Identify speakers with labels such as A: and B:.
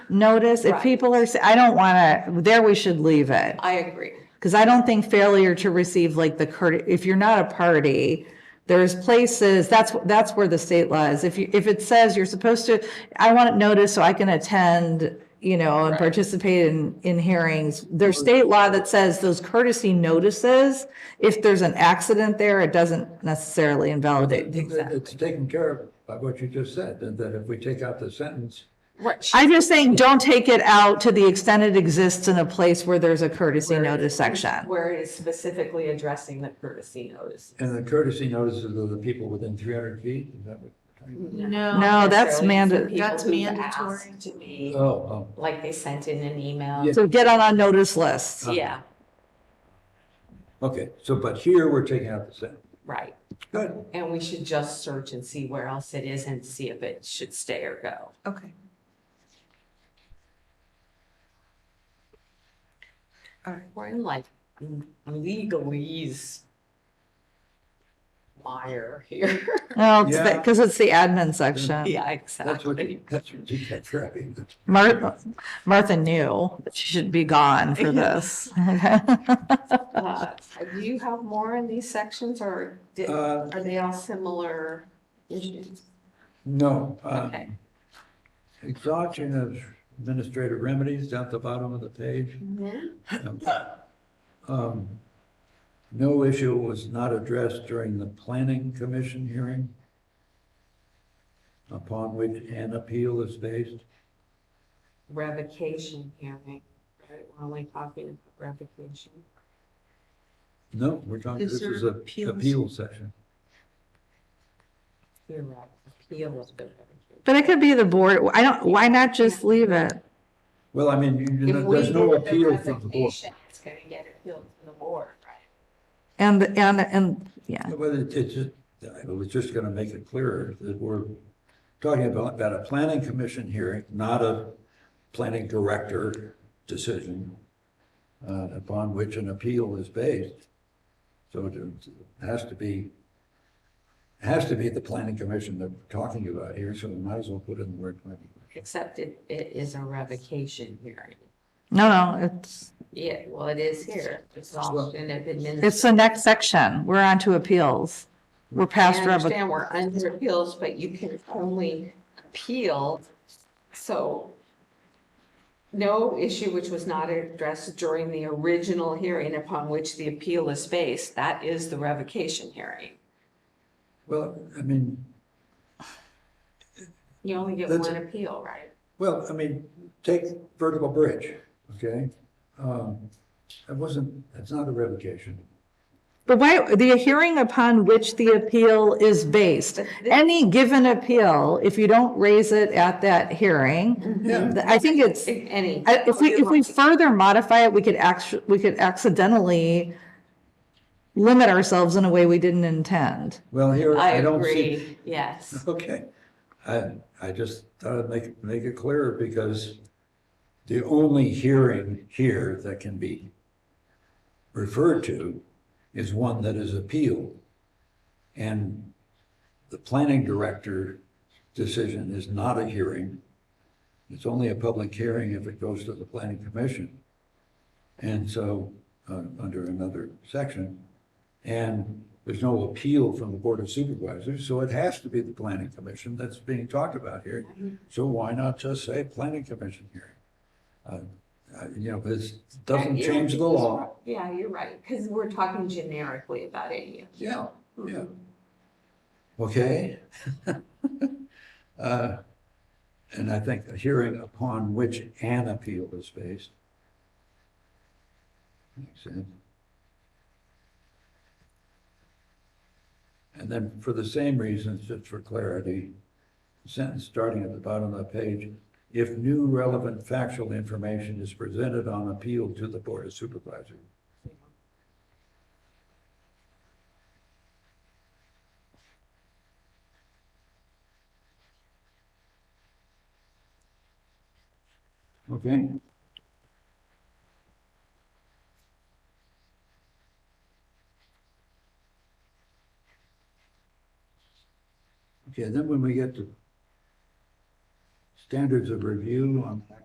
A: notice, if
B: Right.
A: people are, s- I don't want to, there we should leave it.
B: I agree.
A: Because I don't think failure to receive like the courte- if you're not a party, there's places, that's, that's where the state law is. If you, if it says you're supposed to, I want it noticed so I can attend, you know, and participate in, in hearings. There's state law that says those courtesy notices, if there's an accident there, it doesn't necessarily invalidate the exact.
C: It's taken care of by what you just said, and that if we take out the sentence,
B: Right.
A: I'm just saying, don't take it out to the extent it exists in a place where there's a courtesy notice section.
B: Where it is specifically addressing the courtesy notice.
C: and the courtesy notices of the people within three hundred feet, is that what?
D: No.
A: No, that's manda-
B: mandatory.
D: That's mandatory.
B: To be,
C: Oh, oh,
B: like they sent in an email.
C: Yeah.
A: So get on our notice list.
C: uh-huh.
B: Yeah,
C: oh, okay, so, but here we're taking out the sentence,
B: right.
C: good,
B: And we should just search and see where else it is and see if it should stay or go.
D: Okay. All right.
B: We're in like legalese mire here.
A: No, it's
C: Yeah.
A: because it's the admin section.
B: Yeah,
C: that's what, you-
B: exactly.
C: that's what you kept driving.
A: Martha, Martha knew that she should be gone for this.
B: Uh, Do you have more in these sections or did-
C: Uh,
B: are they all similar issues?
C: No, uh,
B: Okay,
C: exhaustion of administrative remedies down at the bottom of the page.
B: Mm-hmm.
C: Um, No issue was not addressed during the planning commission hearing upon which an appeal is based.
B: revocation hearing, right? We're only talking about revocation.
C: No, we're talking,
D: Is
C: this
D: there
C: is a
D: appeals?
C: appeal section.
B: You're right, appeal of the revocation.
A: But it could be the board. I don't, why not just leave it?
C: Well, I mean, you- you
B: If
C: know,
B: we
C: there's no
B: did the
C: appeal from the board.
B: revocation, It's gonna get appealed to the board, right?
A: And, and, and, yeah.
C: Well, it- it's, just- I was just gonna make it clearer that we're talking about, about a planning commission hearing, not a planning director decision uh, upon which an appeal is based. So it has to be, it has to be the planning commission that we're talking about here, so we might as well put in the word planning.
B: Except it, it is a revocation hearing.
A: No, no, it's,
B: Yeah, well, it is here, exhaustion of administration.
A: it's the next section. We're on to appeals. We're
B: I
A: past revocation.
B: understand we're under appeals, but you can only appeal, so no issue which was not addressed during the original hearing upon which the appeal is based, that is the revocation hearing.
C: Well, I mean,
B: You only get
C: That's-
B: one appeal, right?
C: Well, I mean, take vertical bridge, okay? Um, That wasn't, that's not a revocation.
A: But why, the hearing upon which the appeal is based, any given appeal, if you don't raise it at that hearing,
B: Mm-hmm.
C: Yeah.
A: I think it's,
B: If Any.
A: I- If we, if we further modify it, we could actu, we could accidentally limit ourselves in a way we didn't intend.
C: Well, here,
B: I
C: I don't see.
B: agree, yes.
C: Okay. I, I just thought I'd make, make it clearer because the only hearing here that can be referred to is one that is appealed. And the planning director decision is not a hearing. It's only a public hearing if it goes to the planning commission. And so, uh, under another section, and there's no appeal from the Board of Supervisors, so it has to be the planning commission that's being talked about here. So why not just say planning commission hearing? Uh, uh, You know, this doesn't
B: Yeah,
C: change the
B: you're
C: law.
B: right. Yeah, you're right, because we're talking generically about any.
C: Yeah, yeah. Okay. Uh, And I think a hearing upon which an appeal is based. Makes sense. And then for the same reasons, just for clarity, sentence starting at the bottom of the page, if new relevant factual information is presented on appeal to the Board of Supervisors.
B: Mm-hmm.
C: Okay. Okay, then when we get to standards of review on that